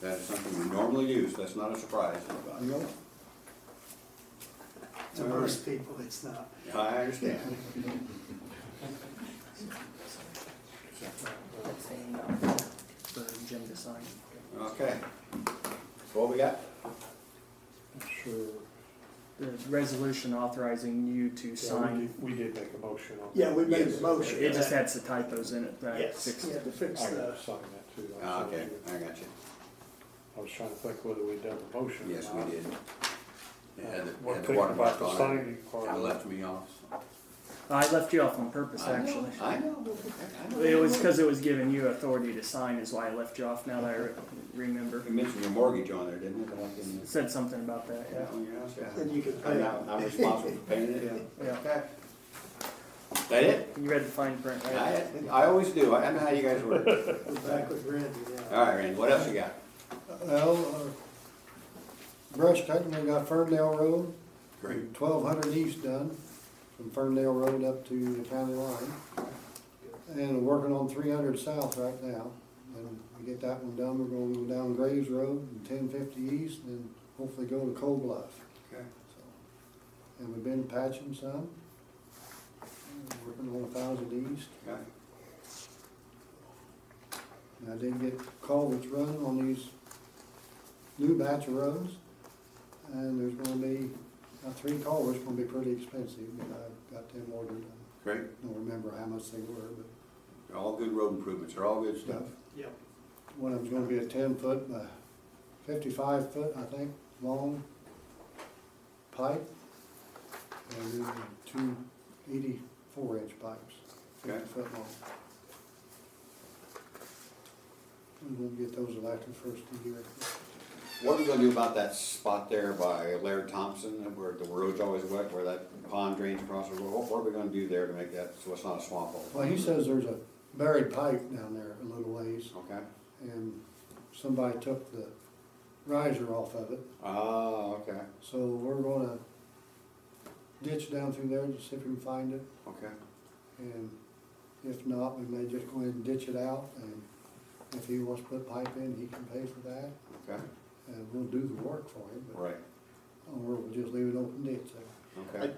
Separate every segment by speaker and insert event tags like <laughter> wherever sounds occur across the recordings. Speaker 1: That is something we normally use, that's not a surprise to anybody.
Speaker 2: Nope.
Speaker 3: To most people, it's not.
Speaker 1: I understand.
Speaker 4: for Jim to uh, sign.
Speaker 1: Okay. What we got?
Speaker 2: Sure.
Speaker 4: The resolution authorizing you to
Speaker 2: Yeah, we
Speaker 4: sign.
Speaker 2: did, we did make a motion on.
Speaker 3: Yeah, we made
Speaker 1: Yes.
Speaker 3: a motion.
Speaker 4: It just had some typos in it that I
Speaker 3: Oh, Yes,
Speaker 4: fixed.
Speaker 3: we had to
Speaker 2: I
Speaker 3: fix
Speaker 2: gotta
Speaker 3: the,
Speaker 2: sign that too.
Speaker 1: Ah,
Speaker 2: I'm sorry.
Speaker 1: Okay, I got you.
Speaker 2: I was trying to think whether we'd done the motion. or
Speaker 1: Yes, we
Speaker 2: not.
Speaker 1: did. It
Speaker 2: Uh,
Speaker 1: had the- had
Speaker 2: One
Speaker 1: the
Speaker 2: thing about
Speaker 1: watermark
Speaker 2: the
Speaker 1: on it.
Speaker 2: signing part.
Speaker 1: It left me off.
Speaker 4: I left you off on purpose,
Speaker 1: I know,
Speaker 4: actually.
Speaker 1: I know. I know.
Speaker 4: It was because it was giving you authority to sign is why I left you off now that I re- remember.
Speaker 1: You mentioned your mortgage on there, didn't you? But I didn't-
Speaker 4: It said something about that,
Speaker 1: Yeah,
Speaker 4: yeah.
Speaker 1: on your house, yeah.
Speaker 3: and you could pay.
Speaker 1: And I- I'm responsible for paying it.
Speaker 4: Yeah.
Speaker 1: Okay. That it?
Speaker 4: You read the fine print, right?
Speaker 1: I, I always do. I I know how you guys work.
Speaker 3: We're <laughs> back with Randy now.
Speaker 1: All right, Randy, what else you got?
Speaker 5: Well, uh, brush cutting, we got Ferndale Road,
Speaker 1: Great.
Speaker 5: twelve hundred east done, from Ferndale Road up to the county line. And we're working on three hundred south right now, and we get that one done, we're gonna go down Graves Road and ten fifty east, and then hopefully go to Cold Bluff.
Speaker 1: Okay.
Speaker 5: So, And we've been patching some, and working on a thousand east.
Speaker 1: Okay.
Speaker 5: And I did get culverts run on these new batch of roads. And there's gonna be, uh, three culverts gonna be pretty expensive, but I've got them ordered.
Speaker 1: Great.
Speaker 5: I don't remember how much they were, but
Speaker 1: They're All good road improvements, they're all good stuff.
Speaker 3: Yep.
Speaker 5: one of them's gonna be a ten foot by fifty-five foot, I think, long pipe. And then two eighty-four inch pipes,
Speaker 1: Okay.
Speaker 5: fifty foot long. And we'll get those elected first of the year.
Speaker 1: What are we gonna do about that spot there by Laird Thompson, where the road's always wet, where that pond drains across the road? What- What are we gonna do there to make that, so it's not a swamp hole?
Speaker 5: Well, he says there's a buried pipe down there a little ways,
Speaker 1: Okay,
Speaker 5: and somebody took the riser off of it,
Speaker 1: ah, okay,
Speaker 5: so we're gonna ditch down through there to see if we can find it,
Speaker 1: okay,
Speaker 5: and if not, we may just go ahead and ditch it out, and if he wants to put pipe in, he can pay for that,
Speaker 1: okay,
Speaker 5: and we'll do the work for him, but,
Speaker 1: right,
Speaker 5: or we'll just leave an open ditch there.
Speaker 1: okay.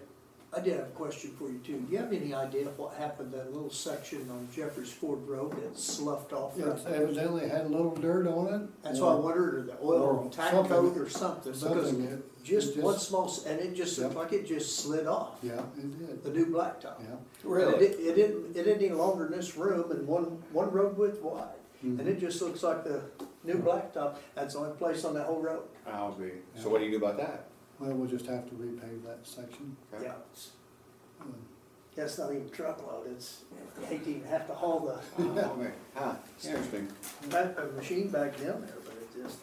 Speaker 3: I did have a question for you too. Do you have any idea what happened, to that little section on Jeffers Ford Road that sloughed off?
Speaker 5: It's evidently had a little dirt on it.
Speaker 3: That's why I wondered, if the oil
Speaker 5: Or
Speaker 3: and tack
Speaker 5: something.
Speaker 3: coat or something, because
Speaker 5: Something that-
Speaker 3: just
Speaker 5: just-
Speaker 3: one small, s- and it just looked
Speaker 5: Yep.
Speaker 3: like it just slid off,
Speaker 5: Yeah, it did,
Speaker 3: the new blacktop.
Speaker 5: yeah.
Speaker 3: And It, di- it didn't, it isn't any longer in this room and one, one road width wide. And it just looks like the new blacktop, that's the only place on that whole road.
Speaker 1: I'll be, so what do you do about that?
Speaker 5: Well, we'll just have to repave that section.
Speaker 1: Okay.
Speaker 3: Yeah, it's-
Speaker 5: Um,
Speaker 3: that's not even truckload, it's, you hate to even have to haul the,
Speaker 1: Ah, okay. Ah, interesting,
Speaker 3: back- the machine back down there, but it just,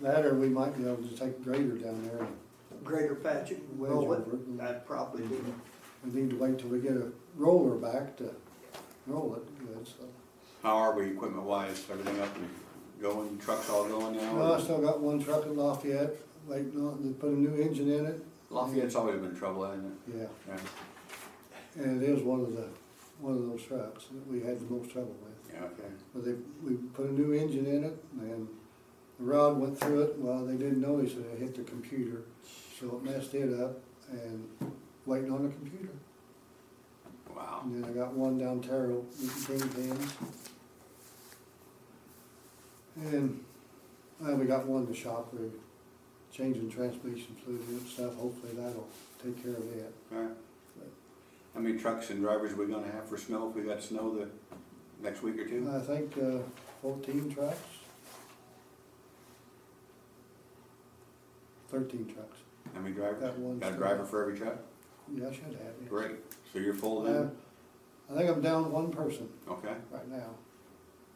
Speaker 5: That or we might be able to take grader down there. and
Speaker 3: greater patch it and roll
Speaker 5: Wedge over it
Speaker 3: it,
Speaker 5: and-
Speaker 3: I'd probably do it.
Speaker 5: We need to wait till we get a roller back to roll it good, so.
Speaker 1: how are we equipment wise, everything up and going, trucks all going now?
Speaker 5: Well, I still got one truck in Lafayette, waiting on, to put a new engine in it,
Speaker 1: Lafayette's always been trouble, hasn't
Speaker 5: yeah.
Speaker 1: it? Yeah,
Speaker 5: And it is one of the, one of those trucks that we had the most trouble with.
Speaker 1: yeah, okay,
Speaker 5: But they, we put a new engine in it and the rod went through it, well, they didn't notice it, it hit the computer. So it messed it up and waiting on the computer.
Speaker 1: wow.
Speaker 5: And then I got one down Terrell, King Pins. And uh, we got one in the shop, we're changing transmission fluid and stuff, hopefully that'll take care of that.
Speaker 1: Alright. How many trucks and drivers we gonna have for snow if we got snow the next week or
Speaker 5: And
Speaker 1: two?
Speaker 5: I think uh, fourteen trucks. Thirteen trucks,
Speaker 1: How many drivers?
Speaker 5: Got one.
Speaker 1: Got a driver for every truck?
Speaker 5: yeah, I should have it.
Speaker 1: Great, so you're full
Speaker 5: Uh,
Speaker 1: then?
Speaker 5: I think I'm down one person
Speaker 1: Okay,
Speaker 5: right now,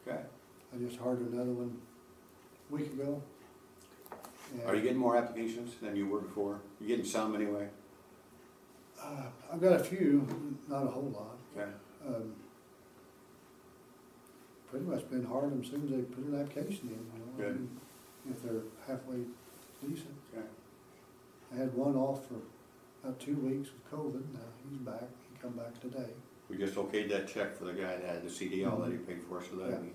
Speaker 1: okay.
Speaker 5: I just hired another one a week ago.
Speaker 1: Are you getting more applications than you were before? You getting some anyway?
Speaker 5: Uh, I've got a few, not a whole lot.
Speaker 1: Okay,
Speaker 5: Um, Pretty much been hard them as soon as they put an application in, you know.
Speaker 1: Good.
Speaker 5: If they're halfway decent.
Speaker 1: okay,
Speaker 5: I had one off for about two weeks with COVID, now he's back, he come back today.
Speaker 1: we just okayed that check for the guy that had the CDL that he paid for, so
Speaker 5: Yeah.
Speaker 1: that